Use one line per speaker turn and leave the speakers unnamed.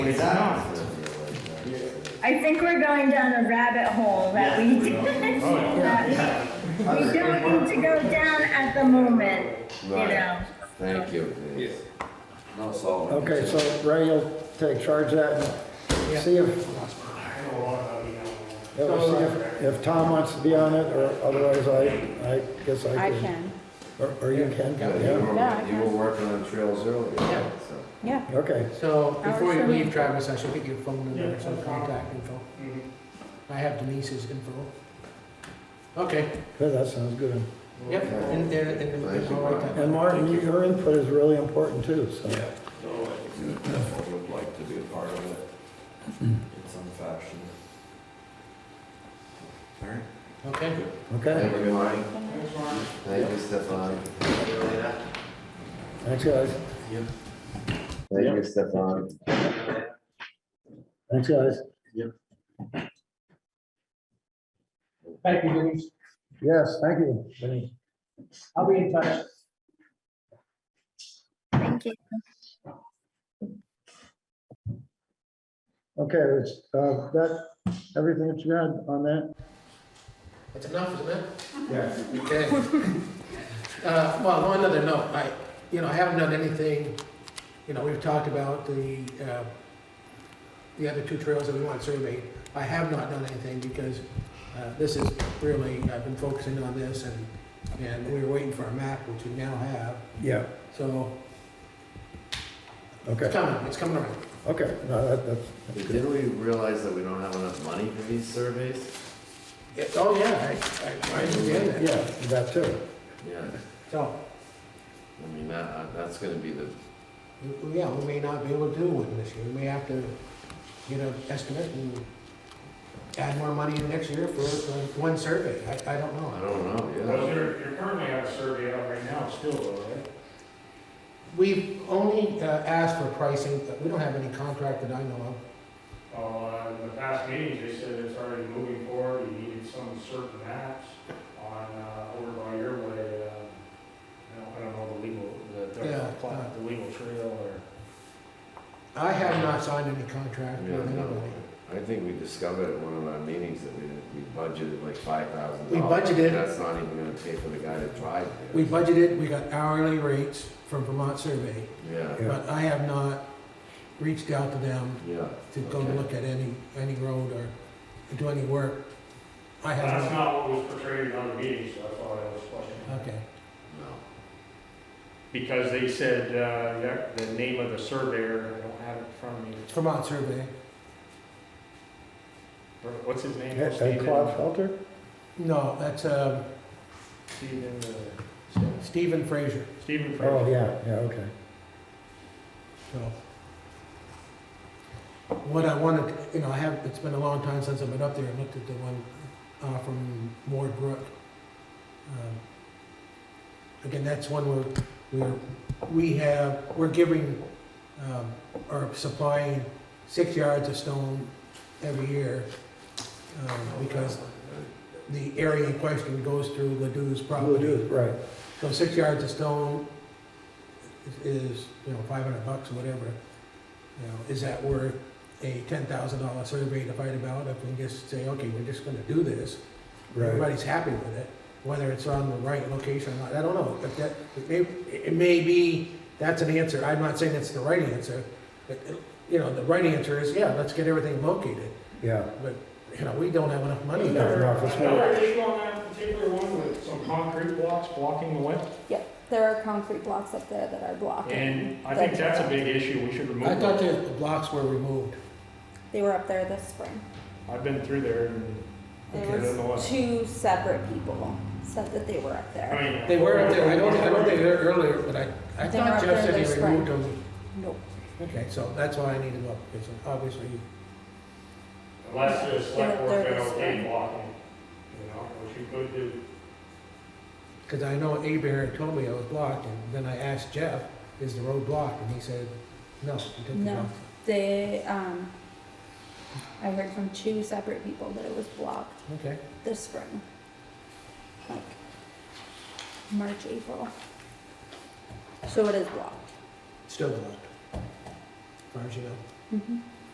It's not.
I think we're going down a rabbit hole that we,
Oh,
that we we don't need to go down at the moment, you
Right.
know?
Thank you. No, solid.
Okay, so Ray, you'll take charge of that and see if, yeah, we'll see if, if Tom wants to be on it, or otherwise I, I guess I
I
can.
can,
Or- Or you can,
Yeah, You
yeah,
Yeah,
were,
I
you were working on trails earlier,
Yeah.
so.
yeah.
okay.
So before you
Hours for me.
leave, Travis, I should get your phone number, some contact info. I have Denise's info. Okay,
Good, that sounds good.
yep, in there, in the,
Thank you,
all right
Brian.
then.
And Martin, your input is really important too, so.
I would like to be a part of it in some fashion.
okay?
Okay,
Thank you, Mike. Thank you, Stefan.
thanks, guys.
Thank you, Stefan.
Thanks, guys.
Thank you, Denise.
Yes, thank you. Vinny.
I'll be in touch.
Thank you.
Okay, that's, uh, that, everything that you had on that?
That's enough, isn't it?
Yeah.
Okay. Uh, well, on another note, I, you know, I haven't done anything, you know, we've talked about the, uh, the other two trails that we want surveyed. I have not done anything because, uh, this is really, I've been focusing on this and, and we were waiting for a map, which we now have.
Yeah,
So it's
okay,
coming, it's coming around.
okay, no, that, that's,
Didn't we realize that we don't have enough money for these surveys?
It- oh, yeah, I, I, I understand that.
yeah, that too.
Yeah,
So,
I mean, that, uh, that's gonna be the,
yeah, we may not be able to do one this year. We may have to get an estimate and add more money in next year for uh, one survey. I, I don't
I
know.
don't
Well,
know,
you're, you're currently on a survey out right now still, though, right?
We've only uh, asked for pricing, but we don't have any contract that I know of.
Uh, in the past meetings, they said it's already moving forward, you needed some certain maps on, uh, over by your way, uh, I don't, I don't know the legal, the,
Yeah,
the pla-
uh,
the legal trail or.
I have not signed any contract
yeah.
with
Yeah, no.
anybody.
I think we discovered at one of our meetings that we, didn't- we budgeted like five thousand dollars.
We budgeted.
That's not even gonna pay for the guy to drive there.
We budgeted, we got hourly rates from Vermont Survey,
Yeah,
Yeah.
but I have not reached out to them
yeah.
to go
Okay.
look at any, any road or do any work. I
That's
haven't,
not what was portrayed in other meetings, so I thought I was questioning.
okay.
No.
Because they said, uh, that- the name of the surveyor, I don't have it in front of me,
Vermont Survey,
what's his name?
And
Stephen-
Claude Felter?
no, that's, um,
Stephen, uh,
Stephen Fraser,
Stephen Fraser.
Oh, yeah, yeah, okay.
so. What I wanted, you know, I have, it's been a long time since I've been up there and looked at the one, uh, from Moore Brook. Um, Again, that's one where, where we have, we're giving, um, or supplying six yards of stone every year. Um, because the area in question goes through Ladou's property.
Right,
So six yards of stone is, you know, five hundred bucks or whatever. You know, is that worth a ten thousand dollar survey to fight about if we just say, okay, we're just gonna do this?
right,
Everybody's happy with it, whether it's on the right location or not, I don't know, but that, it may, it may be, that's an answer, I'm not saying it's the right answer. but, You know, the right answer is, yeah, let's get everything located,
yeah.
but, you know, we don't have enough money.
No,
there.
no, for sure.
Another issue on that particular one with some concrete blocks blocking the way.
Yeah, there are concrete blocks up there that are blocking.
And I think that's a big issue, we should remove
I thought
it.
the blocks were removed.
They were up there this spring.
I've been through there and.
There
Okay, I don't know what-
was two separate people said that they were up
I
there.
mean-
They were up there, I don't, I don't think they were earlier, but I, I
They were
thought
up
Jeff
there
said
this
he removed them.
Nope.
Okay, so that's why I need to go, because obviously,
Unless the select
They're-
board
they're
said okay
just-
blocking, you know, which you could do.
because I know Abear had told me it was blocked, and then I asked Jeff, is the road blocked? And he said, no, he took the
No.
block.
They, um, I heard from two separate people that it was blocked
Okay,
this spring. Like, March, April. So it is blocked.
still blocked, as far as you know.
Mhm.